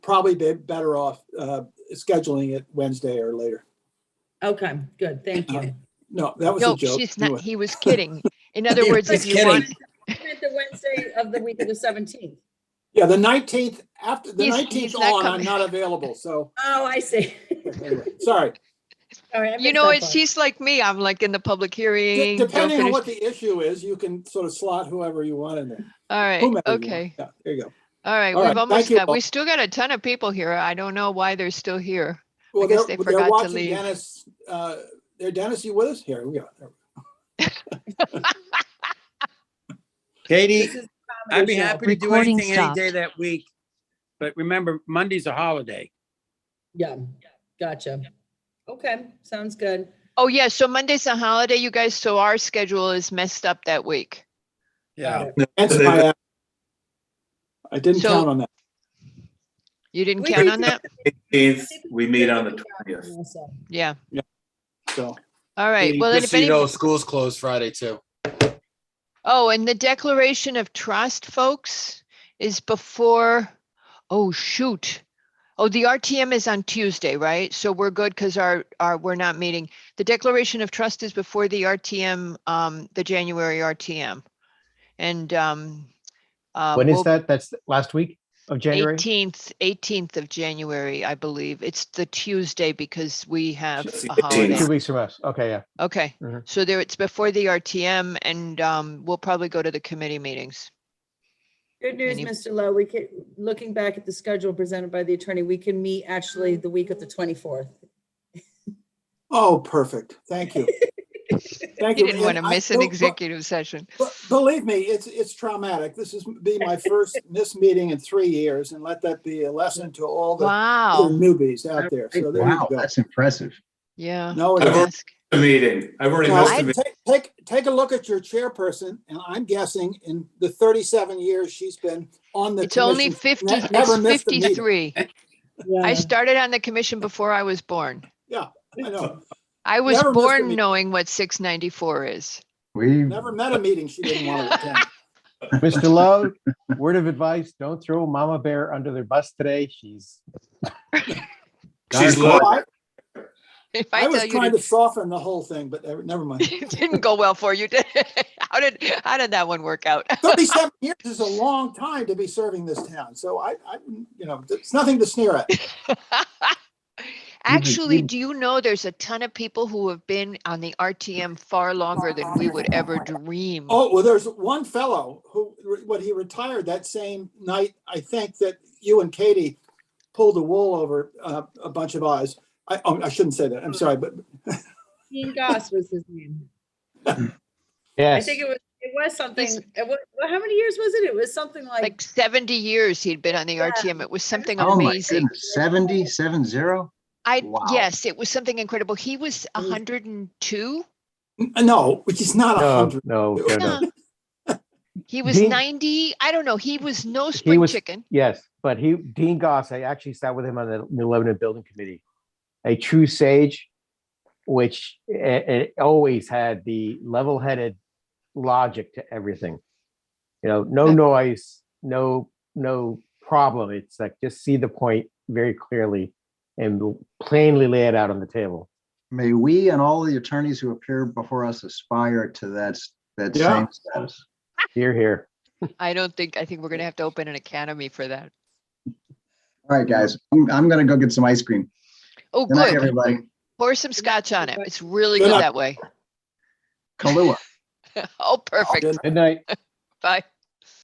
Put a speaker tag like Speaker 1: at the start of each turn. Speaker 1: probably be better off uh, scheduling it Wednesday or later.
Speaker 2: Okay, good, thank you.
Speaker 1: No, that was a
Speaker 3: No,
Speaker 1: joke.
Speaker 3: she's
Speaker 1: Anyway.
Speaker 3: not, he was kidding. In other
Speaker 4: He
Speaker 3: words,
Speaker 2: was
Speaker 3: if you want,
Speaker 2: The Wednesday of the week of the seventeenth.
Speaker 1: Yeah, the nineteenth, after, the
Speaker 3: He's- he's
Speaker 1: nineteenth
Speaker 3: not
Speaker 1: on, I'm
Speaker 3: coming.
Speaker 1: not available, so,
Speaker 2: Oh, I see.
Speaker 1: anyway, sorry.
Speaker 2: All right, I
Speaker 3: you
Speaker 2: missed
Speaker 3: know,
Speaker 2: that
Speaker 3: it's,
Speaker 2: part.
Speaker 3: he's like me, I'm like in the public
Speaker 1: D-
Speaker 3: hearing. don't
Speaker 1: Depending on
Speaker 3: finish-
Speaker 1: what the issue is, you can sort of slot whoever you want in there.
Speaker 3: All right,
Speaker 1: whomever you want.
Speaker 3: okay,
Speaker 1: Yeah, There you go.
Speaker 3: all right,
Speaker 1: All right,
Speaker 3: we've
Speaker 1: thank
Speaker 3: almost
Speaker 1: you
Speaker 3: got, we
Speaker 1: all.
Speaker 3: still got a ton of people here. I don't know why they're still here.
Speaker 1: Well,
Speaker 3: guess
Speaker 1: they're, they're
Speaker 3: they forgot to
Speaker 1: watching
Speaker 3: leave.
Speaker 1: Dennis, uh, there, Dennis, you with us? Here, we go.
Speaker 4: Katie,
Speaker 2: This is a
Speaker 4: I'd be
Speaker 2: comedy show.
Speaker 4: happy to do
Speaker 5: Recording
Speaker 4: anything any
Speaker 5: stopped.
Speaker 4: day that week. But remember, Monday's a holiday.
Speaker 2: Yeah, gotcha. Okay, sounds good.
Speaker 3: Oh, yeah, so Monday's a holiday, you guys, so our schedule is messed up that week.
Speaker 4: Yeah.
Speaker 1: Hence my- I didn't
Speaker 3: So-
Speaker 1: count on that.
Speaker 3: You didn't
Speaker 2: We
Speaker 3: count
Speaker 2: did
Speaker 3: on that?
Speaker 6: Eighteenth, we meet on the twentieth.
Speaker 2: Also.
Speaker 3: Yeah,
Speaker 1: So,
Speaker 3: all right, well, and
Speaker 7: Just so
Speaker 3: if
Speaker 7: you
Speaker 3: any,
Speaker 7: know, school's closed Friday too.
Speaker 3: oh, and the Declaration of Trust, folks, is before, oh, shoot. Oh, the RTM is on Tuesday, right? So we're good because our, our, we're not meeting. The Declaration of Trust is before the RTM, um, the January RTM. And, um, uh,
Speaker 8: When is
Speaker 3: we'll-
Speaker 8: that? That's th- last week of January?
Speaker 3: Eighteenth, eighteenth of January, I believe. It's the Tuesday because we have
Speaker 6: It's the
Speaker 3: a
Speaker 6: 18th.
Speaker 3: holiday.
Speaker 8: Two weeks from us. Okay, yeah.
Speaker 3: Okay,
Speaker 8: Mhm.
Speaker 3: so there, it's before the RTM and um, we'll probably go to the committee meetings.
Speaker 2: Good news,
Speaker 3: Any-
Speaker 2: Mr. Lowe, we can, looking back at the schedule presented by the attorney, we can meet actually the week of the twenty-fourth.
Speaker 1: oh, perfect. Thank you. Thank
Speaker 3: You didn't want to
Speaker 1: And I-
Speaker 3: miss an
Speaker 1: well, well,
Speaker 3: executive session.
Speaker 1: Be- Believe me, it's, it's traumatic. This is be my first missed meeting in three years and let that be a lesson to all the little
Speaker 3: Wow,
Speaker 1: newbies out there. So there you
Speaker 9: Wow,
Speaker 1: go.
Speaker 9: that's impressive.
Speaker 3: yeah.
Speaker 1: No, it
Speaker 3: I'll
Speaker 1: isn't.
Speaker 3: ask.
Speaker 6: The meeting, I've already
Speaker 1: Now,
Speaker 6: missed the
Speaker 3: I-
Speaker 6: meeting.
Speaker 1: take, take, take a look at your chairperson and I'm guessing in the thirty-seven years she's been on the
Speaker 3: It's only
Speaker 1: commission.
Speaker 3: fifty,
Speaker 1: ne- never
Speaker 3: it's
Speaker 1: missed a meeting.
Speaker 3: fifty-three. I
Speaker 2: Yeah.
Speaker 3: started on the commission before I was born.
Speaker 1: I know,
Speaker 3: I was
Speaker 1: Never missed a
Speaker 3: born
Speaker 1: meeting.
Speaker 3: knowing what six ninety-four is.
Speaker 9: We,
Speaker 1: never met a meeting she didn't want to attend.
Speaker 8: Mr. Lowe, word of advice, don't throw Mama Bear under the bus today. She's. not
Speaker 6: She's
Speaker 8: a-
Speaker 6: low.
Speaker 1: I-
Speaker 3: If I
Speaker 1: I
Speaker 3: tell
Speaker 1: was
Speaker 3: you to
Speaker 1: trying to soften the whole thing, but uh, never mind.
Speaker 3: It didn't go well for you. did it? How did how did that one work out?
Speaker 1: Thirty-seven years is a long time to be serving this town, so I, I, you know, it's nothing to sneer at.
Speaker 3: Actually,
Speaker 9: you-
Speaker 3: do you know there's a ton of people who have been on the RTM far longer than we would ever dream?
Speaker 1: Oh, well, there's one fellow who, when he retired that same night, I think that you and Katie pulled the wool over uh, a bunch of eyes. I, oh, I shouldn't say that. I'm sorry, but
Speaker 2: Dean Goss was his name. I
Speaker 8: Yes,
Speaker 2: think it was, it was something, it was, how many years was it? It was something like,
Speaker 3: Like 70 years he'd been on the RTM. It was something
Speaker 9: Oh my
Speaker 3: amazing.
Speaker 9: goodness, seventy, seven zero?
Speaker 3: I
Speaker 9: Wow.
Speaker 3: yes, it was something incredible. He was 102.
Speaker 1: no, which is not a
Speaker 8: no,
Speaker 1: hundred.
Speaker 8: no, no, no.
Speaker 3: He was
Speaker 8: Dean-
Speaker 3: 90. I don't know. He was no spring
Speaker 8: was-
Speaker 3: chicken.
Speaker 8: Yes, but he, Dean Goss, I actually sat with him on the New Lebanon Building Committee. A true sage, which it, always had the level-headed logic to everything. You know, no
Speaker 3: Okay.
Speaker 8: noise, no, no problem. It's like just see the point very clearly and plainly lay it out on the table.
Speaker 9: May we and all the attorneys who appear before us aspire to that, s- that
Speaker 1: Yeah.
Speaker 9: same status.
Speaker 8: Here, here.
Speaker 3: I don't think I think we're gonna have to open an academy for that.
Speaker 9: All right, guys, I'm, I'm gonna go get some ice cream.
Speaker 3: Oh
Speaker 9: Good night,
Speaker 3: good.
Speaker 9: everybody.
Speaker 3: Pour some scotch on it. It's really
Speaker 1: Good
Speaker 3: good
Speaker 1: night.
Speaker 3: that way.
Speaker 9: Kalua.
Speaker 3: Oh perfect.
Speaker 8: Good night.
Speaker 3: Bye.